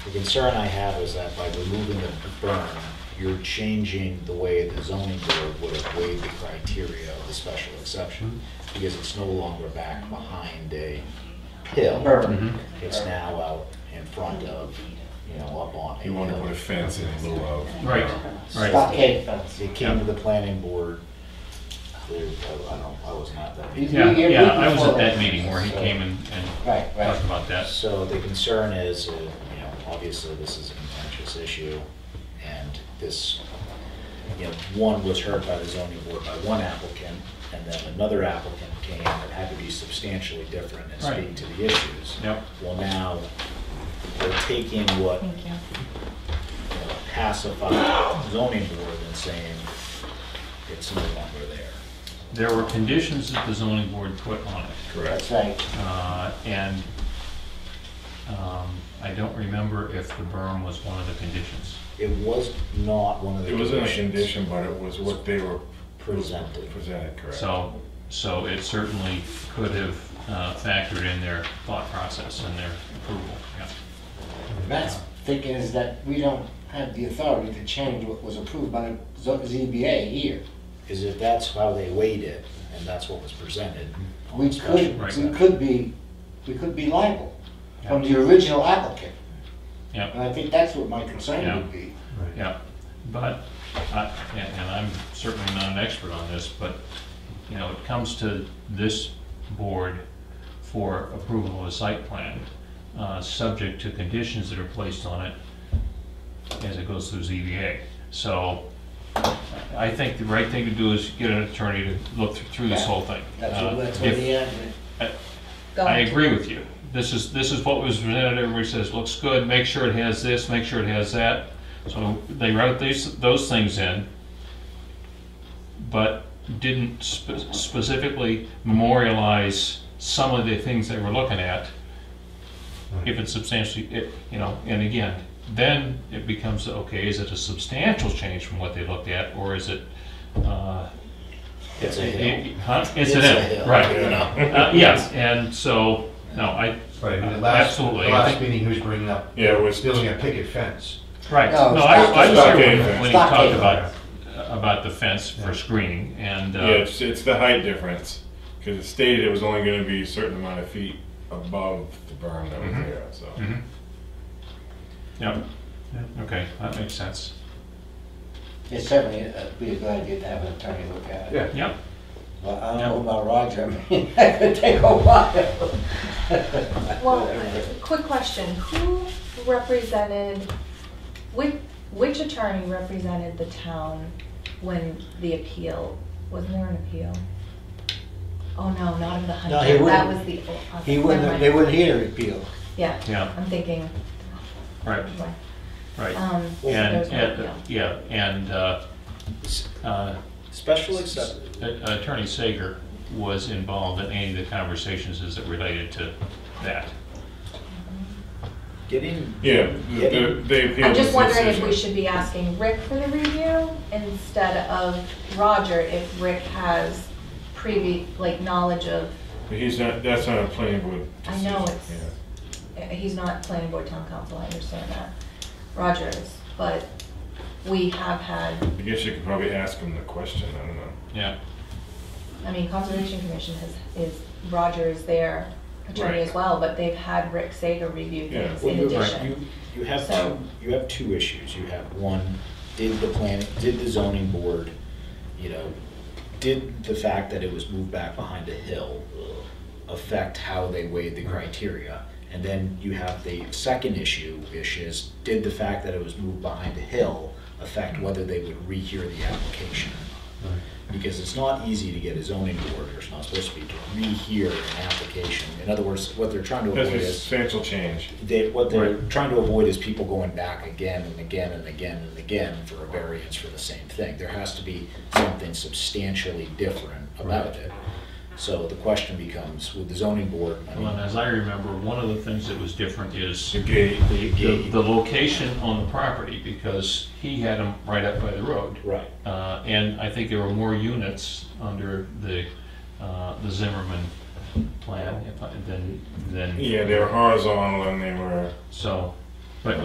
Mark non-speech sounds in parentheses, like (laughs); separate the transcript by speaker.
Speaker 1: The concern I have is that by removing the berm, you're changing the way the zoning board would have weighed the criteria of the special exception, because it's no longer back behind a hill.
Speaker 2: Mm-hmm.
Speaker 3: Berm.
Speaker 1: It's now out in front of, you know, up on.
Speaker 4: You want to put a
Speaker 1: hill.
Speaker 4: fence in lieu of.
Speaker 2: Right, right.
Speaker 3: Stockade fence.
Speaker 1: It came to the planning board, there, I don't, I was not that.
Speaker 3: You-
Speaker 2: Yeah,
Speaker 3: you're
Speaker 2: yeah,
Speaker 3: looking
Speaker 2: I was
Speaker 3: for-
Speaker 2: at that meeting where he came and, and
Speaker 3: Right, right.
Speaker 2: talked about that.
Speaker 1: So the concern is, uh, you know, obviously this is a contentious issue, and this, you know, one was heard by the zoning board by one applicant, and then another applicant came that had to be substantially different in speaking
Speaker 2: Right.
Speaker 1: to the issues.
Speaker 2: Yep.
Speaker 1: Well, now, they're taking what
Speaker 5: Thank you.
Speaker 1: you know, pacified zoning board and saying, it's no longer there.
Speaker 2: There were conditions that the zoning board put on it.
Speaker 3: That's right.
Speaker 2: Uh, And um, I don't remember if the berm was one of the conditions.
Speaker 1: It was not one of the
Speaker 4: It wasn't a
Speaker 1: conditions.
Speaker 4: condition, but it was what they were
Speaker 1: Presented.
Speaker 4: Presented, correct. (laughs)
Speaker 2: So, so it certainly could have uh, factored in their thought process and their approval, yeah.
Speaker 3: Matt's thinking is that we don't have the authority to change what was approved by zo- ZBA here.
Speaker 1: Is if that's how they weighed it, and that's what was presented. on
Speaker 3: We
Speaker 1: discussion.
Speaker 3: could,
Speaker 2: Right.
Speaker 3: we could be, we could be liable from the original applicant.
Speaker 2: Yeah.
Speaker 3: And I think that's what my concern would be.
Speaker 2: Yeah, but, I- and and I'm certainly not an expert on this, but, you know, it comes to this board for approval of a site plan, uh, subject to conditions that are placed on it as it goes through ZBA. So I think the right thing to do is get an attorney to look through this whole thing.
Speaker 3: That's
Speaker 2: Uh,
Speaker 3: what, that's what
Speaker 2: if-
Speaker 3: the admin.
Speaker 5: Go
Speaker 2: I
Speaker 5: ahead.
Speaker 2: agree with you. This is, this is what was presented, everybody says, looks good, make sure it has this, make sure it has that. So they wrote these, those things in, but didn't spe- specifically memorialize some of the things they were looking at. If it's substantially, it- you know, and again, then it becomes, okay, is it a substantial change from what they looked at, or is it, uh?
Speaker 1: It's a hill.
Speaker 2: Huh? It's an
Speaker 1: It's a
Speaker 2: if,
Speaker 1: hill,
Speaker 2: right.
Speaker 1: you know?
Speaker 2: Uh, Yes, and so, no, I,
Speaker 6: Right, and the last, the
Speaker 2: absolutely. I
Speaker 6: last
Speaker 2: think-
Speaker 6: meeting, he was bringing up
Speaker 4: Yeah, it was,
Speaker 6: building a picket fence.
Speaker 2: Right,
Speaker 3: No,
Speaker 2: no, I I was
Speaker 4: stockade
Speaker 2: here
Speaker 4: fence.
Speaker 2: when he talked
Speaker 3: Stockade.
Speaker 2: about, about the fence for screening, and,
Speaker 4: yeah,
Speaker 2: uh,
Speaker 4: it's, it's the height difference, because it stated it was only gonna be a certain amount of feet above the berm that
Speaker 2: Mm-hmm.
Speaker 4: was there, so.
Speaker 2: yeah, okay, that makes sense.
Speaker 3: It's certainly, uh, be a good idea to have an attorney look at it.
Speaker 6: Yeah.
Speaker 2: Yep,
Speaker 3: But I don't know about Roger, (laughs) I mean, that could take a while. (laughs)
Speaker 5: Well, quick question, who represented, which, which attorney represented the town when the appeal, wasn't there an appeal? Oh, no, not of the
Speaker 3: No, he
Speaker 5: Hunter, that
Speaker 3: wouldn't.
Speaker 5: was the. oh,
Speaker 3: He
Speaker 5: never
Speaker 3: wouldn't,
Speaker 5: mind.
Speaker 3: they wouldn't hear the appeal.
Speaker 5: Yeah,
Speaker 2: yeah,
Speaker 5: I'm thinking,
Speaker 2: right, right.
Speaker 5: um, so there's
Speaker 2: And,
Speaker 5: no
Speaker 2: and,
Speaker 5: appeal.
Speaker 2: yeah, and uh, uh,
Speaker 1: Special exception.
Speaker 2: Attorney Sager was involved in any of the conversations as it related to that.
Speaker 1: Getting,
Speaker 4: Yeah, the- the- they appealed
Speaker 5: I'm just
Speaker 4: this
Speaker 5: wondering if
Speaker 4: decision.
Speaker 5: we should be asking Rick for the review instead of Roger, if Rick has previ, like, knowledge of,
Speaker 4: But he's not, that's not a planning board
Speaker 5: I know
Speaker 4: decision,
Speaker 5: it's- eh, he's not planning board town council, I understand that, Roger is, but we have had,
Speaker 4: yeah. I guess you could probably ask him the question, I don't know.
Speaker 2: Yeah,
Speaker 5: I mean, Conservation Commission has, is, Roger is their attorney
Speaker 4: Right.
Speaker 5: as well, but they've had Rick Sager review
Speaker 4: Yeah.
Speaker 5: things
Speaker 1: well,
Speaker 5: in
Speaker 1: you,
Speaker 5: addition.
Speaker 1: you, you have
Speaker 5: So-
Speaker 1: two, you have two issues. You have one, did the plan, did the zoning board, you know, did the fact that it was moved back behind a hill affect how they weighed the criteria? And then you have the second issue, which is, did the fact that it was moved behind a hill affect whether they would rehear the application? because it's not easy to get a zoning board, or it's not supposed to be, to rehear an application. In other words, what they're trying to
Speaker 4: That's
Speaker 1: avoid
Speaker 4: a
Speaker 1: is,
Speaker 4: substantial change.
Speaker 1: they, what they're trying to avoid is people going back again and again and again and again for a variance for the same thing. There has to be something substantially different about it. So the question becomes, with the zoning board, I
Speaker 2: well, and
Speaker 1: mean,
Speaker 2: as I remember, one of the things that was different is
Speaker 4: The gate,
Speaker 2: the, the- the location on the property, because he had them right up by the road.
Speaker 1: right,
Speaker 2: Uh, and I think there were more units under the, uh, the Zimmerman plan if I- than, than.
Speaker 4: yeah, they were horizontal and they were,
Speaker 2: So,